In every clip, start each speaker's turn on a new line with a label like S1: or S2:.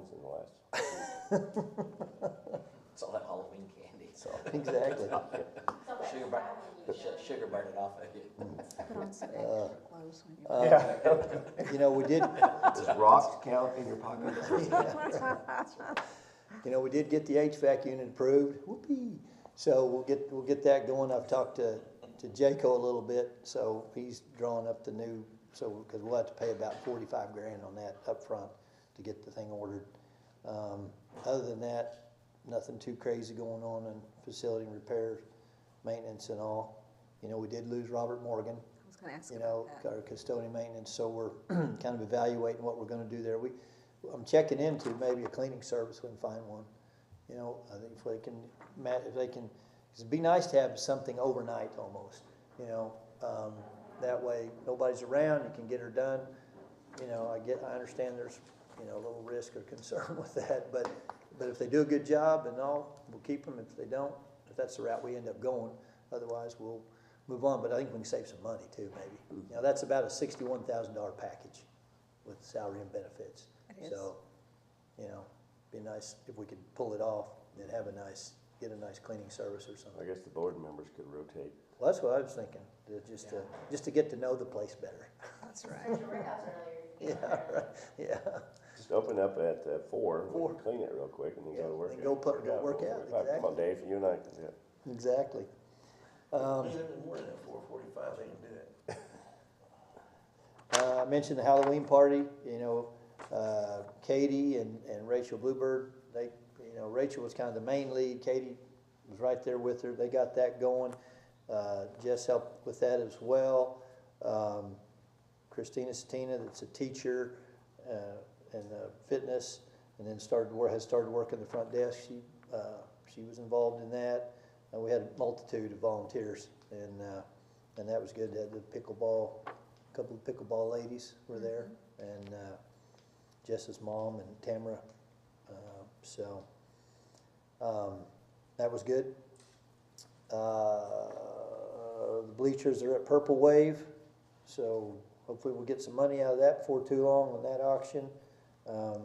S1: times in the last,
S2: It's all that Halloween candy.
S1: so, exactly.
S2: Sugar bar, su- sugar burned it off of you.
S3: Put on some extra clothes when you're.
S1: Uh, You know, we did,
S4: Does rocks count in your pocket?
S1: you know, we did get the HVAC unit approved, whoopee. So we'll get, we'll get that going. I've talked to, to Jaco a little bit, so he's drawing up the new, so, because we'll have to pay about forty-five grand on that upfront to get the thing ordered. Um, other than that, nothing too crazy going on in facility repairs, maintenance and all. You know, we did lose Robert Morgan,
S3: I was gonna ask
S1: you know,
S3: about that.
S1: our custodian maintenance, so we're kind of evaluating what we're gonna do there. We, I'm checking into maybe a cleaning service, we can find one, you know, I think if they can, ma- if they can, 'cause it'd be nice to have something overnight almost, you know? Um, that way, nobody's around, you can get her done, you know, I get, I understand there's, you know, a little risk or concern with that, but, but if they do a good job and all, we'll keep them, if they don't, if that's the route we end up going, otherwise we'll move on, but I think we can save some money too, maybe. Now, that's about a sixty-one thousand dollar package with salary and benefits.
S3: It
S1: So, you know, be nice if we could pull it off and have a nice, get a nice cleaning service or
S4: I
S1: something.
S4: guess the board members could rotate.
S1: Well, that's what I was thinking, to- just to, just to get to know the place better.
S3: That's right.
S1: Yeah, right, yeah.
S4: Just open up at uh, four,
S1: Four.
S4: we can clean it real quick and then go to
S1: Yeah,
S4: work.
S1: then go put- go work out,
S4: Forty-five. Come on, Dave, you and I can do it.
S1: Exactly.
S5: Leave it in the morning at four forty-five, they can do it.
S1: Uh, I mentioned the Halloween party, you know, uh, Katie and, and Rachel Bluebird, they, you know, Rachel was kind of the main lead, Katie was right there with her, they got that going. Uh, Jess helped with that as well. Um, Christina Satina, that's a teacher, uh, in uh, fitness, and then started, wor- has started working the front desk, she, uh, she was involved in that. And we had a multitude of volunteers, and, uh, and that was good, They had the pickleball a couple of pickleball ladies were there, and uh, Jess's mom and Tamara. Uh, so um, that was good. Uh, the bleachers are at Purple Wave, so hopefully we'll get some money out of that before too long on that auction. Um,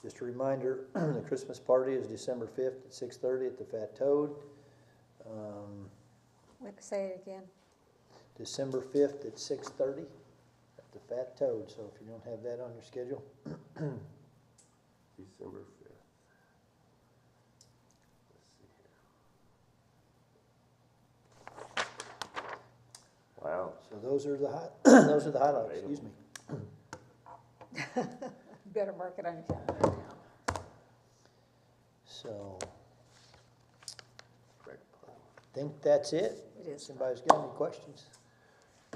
S1: just a reminder, the Christmas party is December fifth at six thirty at the Fat Toad. Um,
S3: Wait, Say it again.
S1: December fifth at six thirty at the Fat Toad, so if you don't have that on your schedule,
S4: December fifth. Let's see here. Wow,
S1: so those are the hot, those are the highlights, excuse me.
S3: Better mark it on your calendar now.
S1: So,
S4: correct.
S1: I think that's it.
S3: It is.
S1: Somebody's got any questions?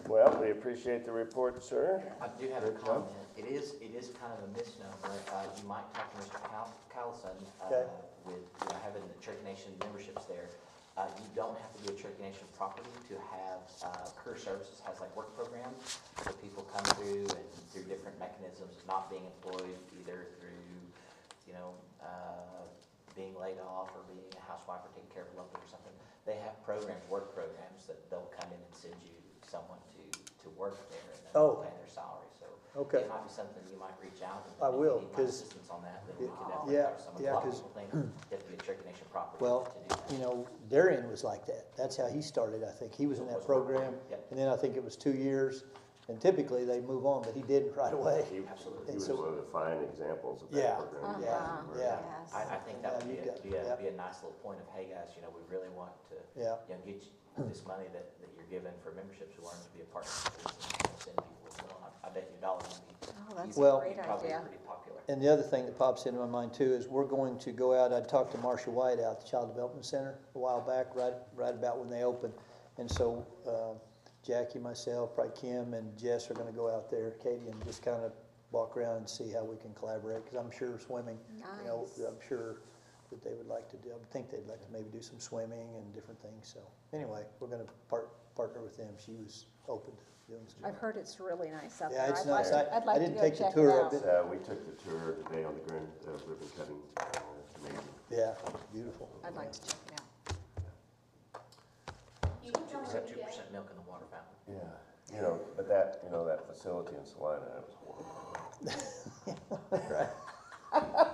S4: Well, we appreciate the report, sir.
S2: I do have a comment. It is, it is kind of a misnomer. Uh, you might talk to Mr. Cow- Callison, uh,
S1: Okay.
S2: with, you know, having the Cherokee Nation memberships there. Uh, you don't have to be a Cherokee Nation property to have, uh, career services has like work programs. So people come through and through different mechanisms, of not being employed either through, you know, uh, being laid off or being a housewife or taking care of a loved one or something. They have programs, work programs that they'll come in and send you someone to, to work there and then
S1: Oh.
S2: they'll pay their salary, so.
S1: Okay.
S2: It might be something you might reach out. and
S1: I
S2: if you
S1: will,
S2: need my
S1: 'cause-
S2: Assistance on that, then we could definitely
S1: yeah,
S2: hire someone.
S1: yeah,
S2: A lot of
S1: 'cause-
S2: people think they have to be a Cherokee Nation property to
S1: Well,
S2: do that.
S1: you know, Darian was like that. That's how he started, I think. He was in that program,
S2: Yep.
S1: and then I think it was two years, and typically they move on, but he didn't right away.
S4: He
S2: Absolutely.
S4: he was
S1: So-
S4: one of the fine examples of
S1: Yeah,
S4: that program.
S1: yeah, yeah.
S2: I, I think that would
S1: Yeah,
S2: be,
S1: you
S2: a-
S1: got-
S2: be a,
S1: yeah.
S2: be a nice little point of, hey guys, you know, we really want to,
S1: Yeah,
S2: you know, get you this money that, that you're given for memberships, we want them to be a part of this and we'll send people as well. I I bet your dollar would be,
S3: Oh, that's a
S1: Well-
S3: great
S2: probably
S3: idea.
S2: pretty popular.
S1: And the other thing that pops into my mind too is we're going to go out, I talked to Marsha White out at the Child Development Center a while back, right, right about when they opened. And so, uh, Jackie, myself, probably Kim and Jess are gonna go out there, Katie, and just kind of walk around and see how we can collaborate, cause I'm sure swimming, you know,
S3: Nice.
S1: I'm sure that they would like to do, I would think they'd like to maybe do some swimming and different things, so. Anyway, we're gonna part, partner with them, she was open to doing some.
S3: I've heard it's really nice out
S1: Yeah,
S3: there.
S1: it's
S3: I'd like
S1: nice.
S3: to-
S1: I-
S3: I'd
S1: I
S3: like to
S1: didn't
S3: go
S1: take the
S3: check it
S1: tour of
S3: out.
S1: it.
S4: Uh, we took the tour today on the grand, uh, ribbon cutting, uh, it's amazing.
S1: Yeah, beautiful.
S3: I'd like to check it out.
S6: You can tell
S2: Except
S6: them
S2: two
S6: yes.
S2: percent milk in the water fountain.
S4: Yeah, you know, but that, you know, that facility in Salina, that was horrible.